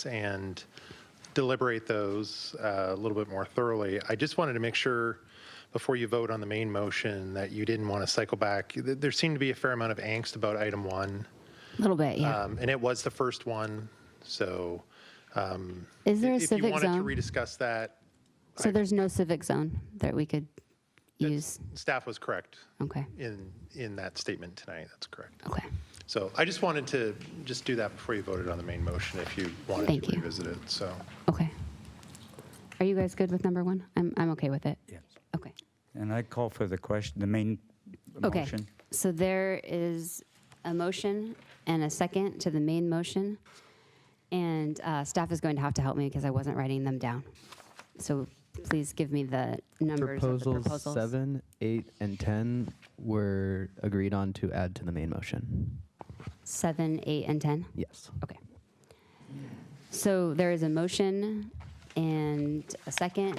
points and deliberate those uh, a little bit more thoroughly. I just wanted to make sure, before you vote on the main motion, that you didn't want to cycle back. Th- There seemed to be a fair amount of angst about item one, A little bit, yeah. um, and it was the first one, so. Is there a If you civic wanted to zone? rediscuss that, So there's no civic zone that we could use? staff was correct Okay, in, in that statement tonight, that's correct. okay. So I just wanted to just do that before you voted on the main motion, if you wanted Thank to you. revisit it, so. Okay. Are you guys good with number one? I'm, I'm okay with it. Yes. Okay. And I call for the question, the main Okay. motion. So there is a motion and a second to the main motion. And uh, staff is going to have to help me because I wasn't writing them down. So please give me the numbers of the Proposals proposals. seven, eight, and ten were agreed on to add to the main motion. Seven, eight, and 10? Yes. Okay. So there is a motion and a second.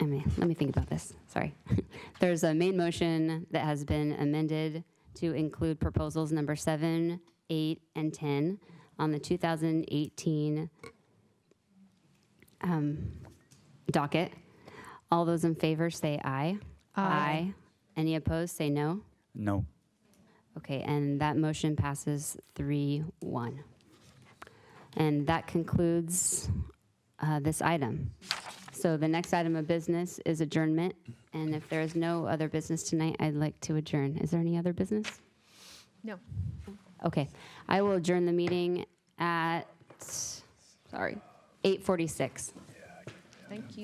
I mean, let me think about this, sorry. There's a main motion that has been amended to include proposals number seven, eight, and 10 on the 2018 um, docket. All those in favor say aye. Aye. Any opposed, say no. No. Okay, and that motion passes 3-1. And that concludes uh, this item. So the next item of business is adjournment, and if there is no other business tonight, I'd like to adjourn. Is there any other business? No. Okay, I will adjourn the meeting at, sorry, 8:46. Thank you.